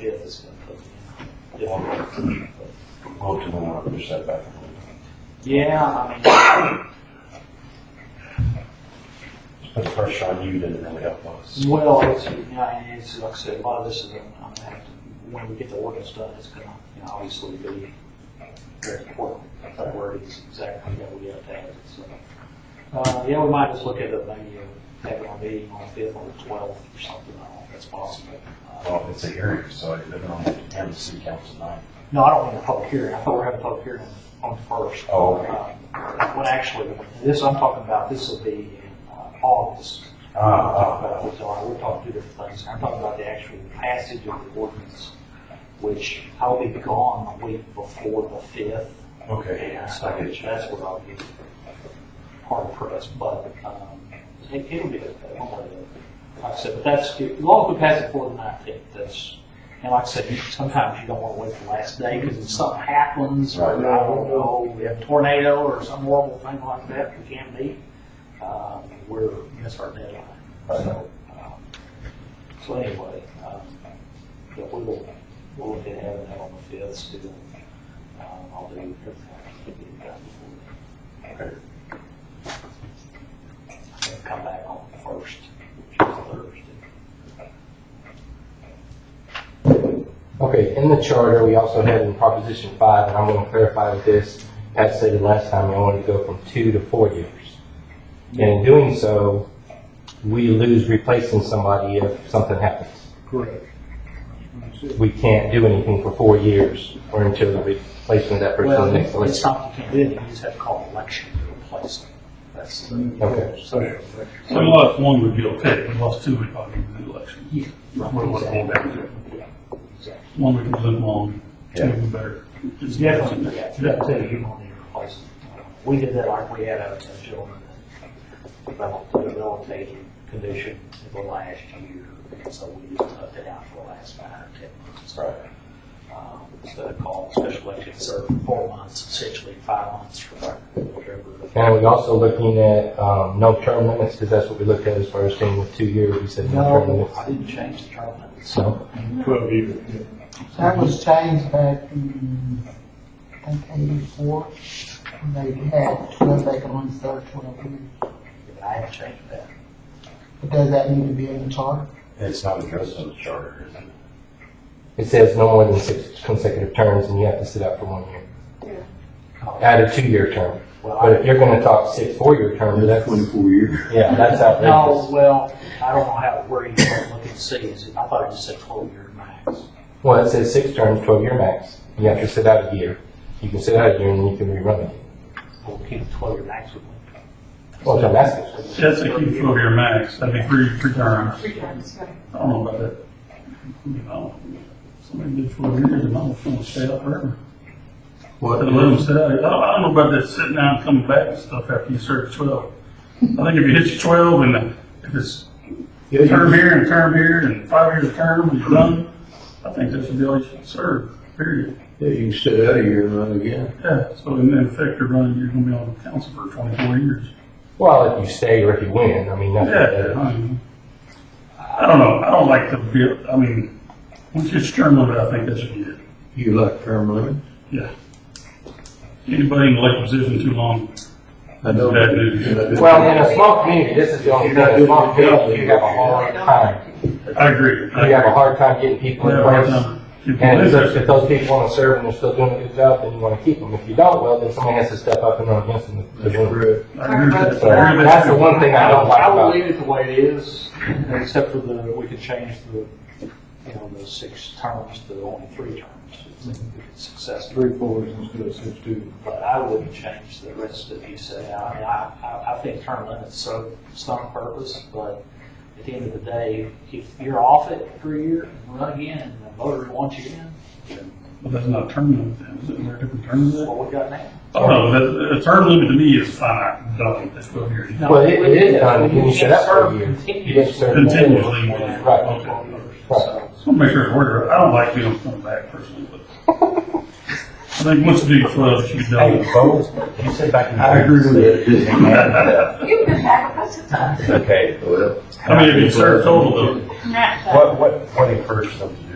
Yeah, it's gonna put. Go to the one other setback. Yeah, I Just Put the pressure on you didn't really help us. mean, well, it's, yeah, it's, like I said, a lot of this is, gonna- I'm gonna have to, when we get the ordinance done, it's gonna, you know, obviously be very important, that word is exactly that we have to have it, so. Uh, yeah, we might just look at it, maybe uh, have it on meeting on the fifth or the twelfth or something, I don't know if that's possible. Uh, Well, it's a hearing, so it doesn't only attend the city council tonight. No, I don't mean a public hearing, I thought we were having a public hearing on the first. Oh, okay. Uh, When actually, this I'm talking about, this will be in uh, August. Ah, ah, Uh, so We're talking two different things, I'm talking about the actual passage of the ordinance, which I'll be gone the week before the fifth. ah. Okay, And so I get you. that's where I'll be hard pressed, but, um, it- it'll be, okay, one way or the other. like I said, but that's, as long as we pass it before the nineteenth, that's, and like I said, you- sometimes you don't wanna wait the last day, cause if something happens, or I don't Right. know, we have a tornado or some horrible thing like that, we can't meet, um, we're, miss our deadline. Right. So, um, so anyway, um, but we will, we'll look at having that on the fifth, still, um, I'll do everything I can to get it done before then Okay. and come back on the first, which is Thursday. Okay, in the charter, we also have in Proposition 5, and I'm going to clarify with this, Pat said it last time, I wanted to go from two to four years. And in doing so, we lose replacing somebody if something happens. Correct. We can't do anything for four years or until the replacement of that person Well, is next it's election. not, you can't do it, you just have to call an election to replace them. That's, the- Okay, So we lost one, would be okay, we lost two, we'd probably need an election. yeah. That's what it was all down to. Exactly. One we can live on, two Yeah. we better. It's Definitely, yeah, you gotta tell you, you're gonna need to replace them. We did that, like, we had a a gentleman that developed a debilitating condition in the last year, and so we just left it out for the last five or ten months. Right. um, instead of calling special election serve four months, essentially five months or whatever. and we're also looking at um, no term limits, because that's what we looked at as far as staying with two years, we said no term No, limits. I didn't change the term limits. So, Twelve years. That was changed back in, I think, eighty-four, when they had twelve vacancies, third twelve years. I haven't changed that. But does that need to be in the charter? It's not addressed in the charter, is it? it says no more than six consecutive terms, and you have to sit out for one year. Add a two-year term. Well, But if I, you're gonna talk six four-year terms, that's, years. yeah, that's no, outrageous. well, I don't know how, where you can look and see, is it, I thought it just said twelve year max. Well, it says six terms, twelve-year max. You have to sit out a year. You can sit out a year and you can rerun it. We'll keep the twelve year max with me. Well, that's what I'm asking. That's a key four year max, that'd be three, three terms. Three times, right. I don't know about that. You know, somebody did four years, and I'm gonna stay out forever. What? Let them sit out. I don't, I don't know about that sitting down and coming back and stuff after you serve twelve. I think if you hit your twelve and uh, if it's term here and term here and five years of term and you're done, I think that should be all you should serve, period. Yeah, you can sit out of here and run again. Yeah, so in effect, you're running, you're gonna be on the council for twenty-four years. Well, if you stay or if you win, I mean, that's what that Yeah, is. I mean, I don't know, I don't like the, bill- I mean, once you term limit, I think that should be it. You like term limits? Yeah. Anybody in the late position too long, I don't. Bad news. Well, in a small community, this is the only thing, in a small community, you have a hard time. I agree. I You have a hard time getting people in place. And if those- place. if those people wanna serve and they're still doing a good job, then you wanna keep them. If you don't, well, then someone has to step up and run against them. to That's win. correct. I agree with that. So I agree with that's the that. one thing I don't like I will about leave it the way it is, except for the, we could change the, you know, the six terms to only three terms. if Mm-hmm. it's Successful. Three fours instead of six twos. But I wouldn't change the rest that you said. I mean, I, I, I think term limits serve some purpose, but at the end of the day, if you're off it for a year, and run again, and the voter wants you in, But that's not a term limit, then. is it? There are different terms that's there? what we got now. Oh, no, that, a term limit to me is fine, done, that's what you're. Well, it- it is done, you can shut up for a year. You Continues. didn't serve. Continually. Right. Okay. So, Just want to make sure it's worth it. I don't like being coming back personally, but I think once you do twelve, you Hey, done. Bo, you said back in. I agree with that. You've been back a bunch of times. Okay. Well. I mean, if you serve total though, Not, uh, What, what, what encouraged them to do